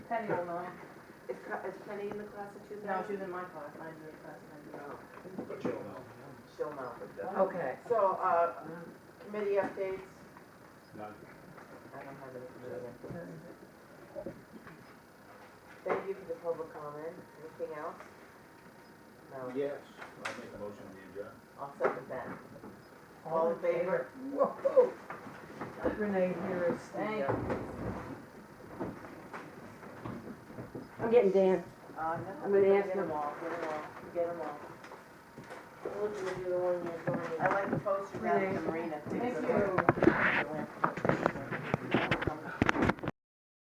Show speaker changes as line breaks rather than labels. Penny will know.
Is Ca- is Penny in the class of two
No, she
thousand?
was in my class, I was in her class, and I did.
But you'll know.
She'll know, but the-
Okay.
So, uh, committee updates?
None.
I don't have any committee updates. Thank you for the public comment. Anything else? No.
Yes. I'll make a motion to adjourn.
I'll second that. All in favor?
Whoa. Renee, here is the, uh,
I'm getting Dan.
Uh, no.
I'm gonna ask
Get
them.
them all, get them all, get them all. I like the poster around the marina. too,
Thank
so
you.
that-